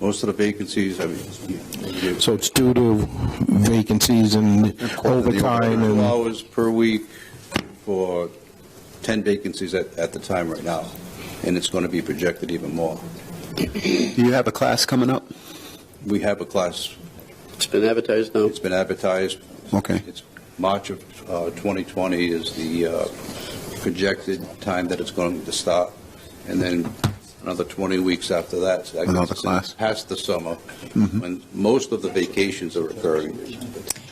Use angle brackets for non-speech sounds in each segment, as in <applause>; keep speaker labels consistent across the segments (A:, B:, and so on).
A: Most of the vacancies, I mean, you-
B: So it's due to vacancies and overtime
A: Two
B: and,
A: hours per week for 10 vacancies at, at the time right now, and it's going to be projected even more.
C: Do you have a class coming up?
A: We have a class,
D: It's been advertised now.
A: it's been advertised,
C: Okay.
A: it's March of uh, 2020 is the uh, projected time that it's going to start, and then another 20 weeks after that. so that gets
C: Another
A: us
C: class.
A: Past the summer,
C: Mhm.
A: when most of the vacations are occurring.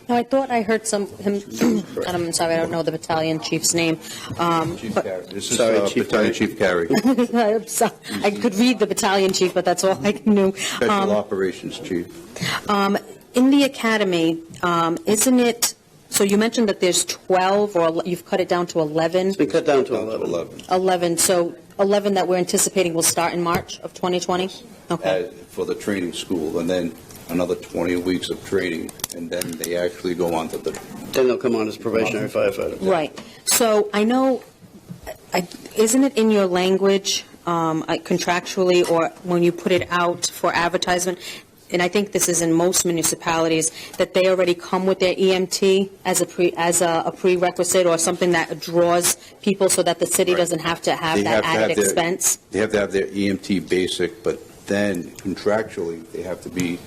E: Now, I thought I heard some, him, <clears throat> and I'm sorry, I don't know the battalion chief's name, <laughs> um,
A: Chief
E: but,
A: Carey, this is
D: Sorry,
A: uh,
D: Chief
A: Battalion
D: Carey.
A: Chief Carey,
E: I'm sorry, I could read the battalion chief, but that's all I <laughs> knew.
A: Special Operations Chief.
E: Um, in the academy, um, isn't it, so you mentioned that there's 12, or ele- you've cut it down to 11,
D: It's been cut down to
A: Down to
D: 11.
A: 11,
E: 11, so 11 that we're anticipating will start in March of 2020? Okay,
A: uh, for the training school, and then another 20 weeks of training, and then they actually go on to the,
D: Then they'll come on as probationary firefighter.
E: right. So I know, I- isn't it in your language um, I- contractually, or when you put it out for advertisement, and I think this is in most municipalities, that they already come with their EMT as a pre, as a a prerequisite or something that draws people so that the city
A: Right.
E: doesn't have to have
A: They have
E: that
A: to have
E: added
A: their-
E: expense?
A: they have to have their EMT basic, but then contractually, they have to be,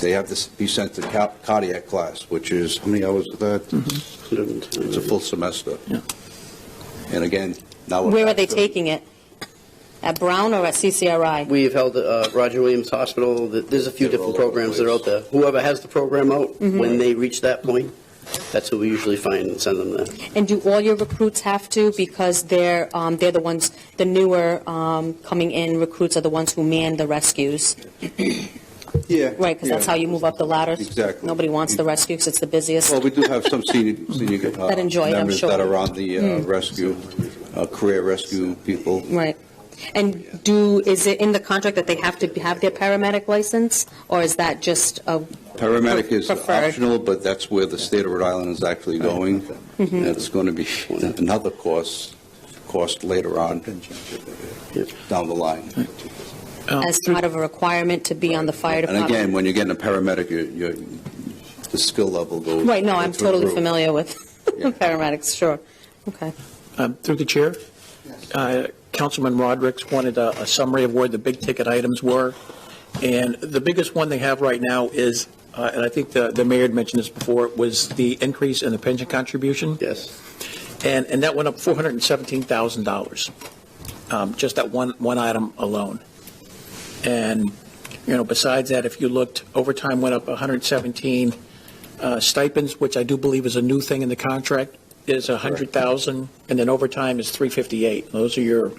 A: they have to be sent to ca- cardiac class, which is, how many hours is
E: Mm-hmm.
A: that? It's a full semester. And again, now. we're
E: Where are
A: back
E: they
A: to-
E: taking it? At Brown or at CCRI?
D: We've held uh, Roger Williams Hospital, Th- there's a few
A: They're
D: different
A: all over the Mm-hmm.
D: programs that are out there. Whoever has the program out, when they reach that point, that's who we usually find and send them there.
E: And do all your recruits have to because they're, um, they're the ones, the newer um, coming in recruits are the ones who man the rescues,
A: Yeah.
E: right? Because that's
A: yeah.
E: how you move up the ladder.
A: Exactly.
E: Nobody wants the rescue 'cause it's the busiest.
A: Well, we do have some senior, senior. uh,
E: <laughs> That enjoy it, I'm
A: Members
E: sure. Mm.
A: that are on the uh, rescue, uh, career rescue people.
E: Right. And do, is it in the contract that they have to have their paramedic license? Or is that just a,
A: Paramedic is
E: Preferred.
A: optional, but that's where the state of Rhode Island is actually going.
E: Mm-hmm.
A: And it's going to be another cost, cost later on down the line.
E: as part of a requirement to be on the fire
A: And
E: department?
A: again, when you're getting a paramedic, your, your, the skill level goes.
E: Right, no, I'm
A: goes through the
E: totally
A: roof.
E: familiar with <laughs>
A: Yeah.
E: paramedics, sure. Okay.
F: Um, Through the chair, uh, Councilman Rodrick wanted a a summary of where the big-ticket items were, and the biggest one they have right now is, uh, and I think the the mayor had mentioned this before, was the increase in the pension contribution,
D: Yes.
F: and and that went up $417,000, um, just that one one item alone. And, you know, besides that, if you looked, overtime went up 117, uh, stipends, which I do believe is a new thing in the contract, is 100,000, and then overtime is 358. Those are your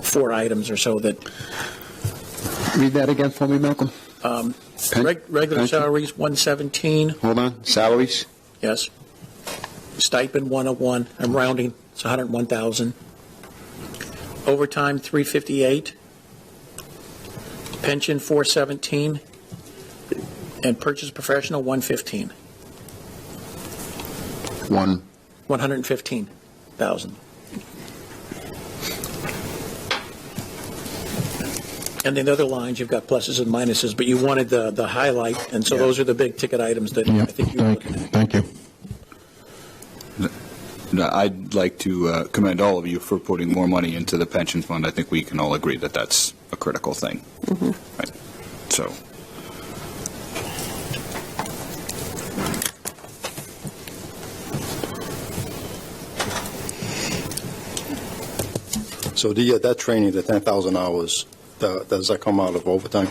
F: four items or so that,
C: Read that again for me, Malcolm.
F: um,
C: Pen-
F: reg- regular
C: pension?
F: salaries, 117,
C: Hold on. Salaries?
F: yes. Stipend, 101, I'm rounding, it's 101,000. Overtime, 358. Pension, 417. And purchase professional, 115,
C: One.
F: 115,000. And then the other lines, you've got pluses and minuses, but you wanted the, the highlight, and so those are the big ticket items that I
B: yeah,
F: think you were
B: thank,
F: looking at.
B: thank you.
G: No, I'd like to uh, commend all of you for putting more money into the pension fund. I think we can all agree that that's a critical thing. Right. So,
H: So the, uh, that training, the 10,000 hours, tha- does that come out of overtime?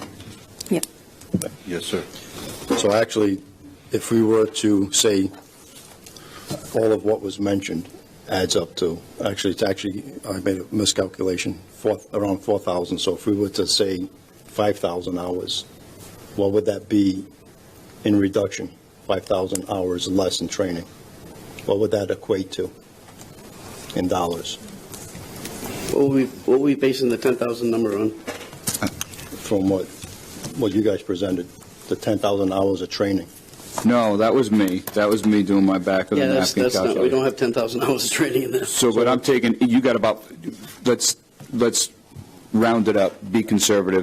A: Yes, sir.
H: So actually, if we were to say all of what was mentioned adds up to, actually, it's actually, I made a miscalculation, four, around 4,000. So if we were to say 5,000 hours, what would that be in reduction? 5,000 hours less in training? What would that equate to in dollars
D: What were we, what were we basing the 10,000 number on?
H: from what, what you guys presented, the 10,000 hours of training?
G: no, that was me. That was me doing my back of
D: Yeah,
G: the
D: that's,
G: napkin
D: that's not, we
G: calculation.
D: don't have 10,000 <laughs> hours of training in there.
G: So, but I'm taking, you got about, let's, let's round it up, be conservative,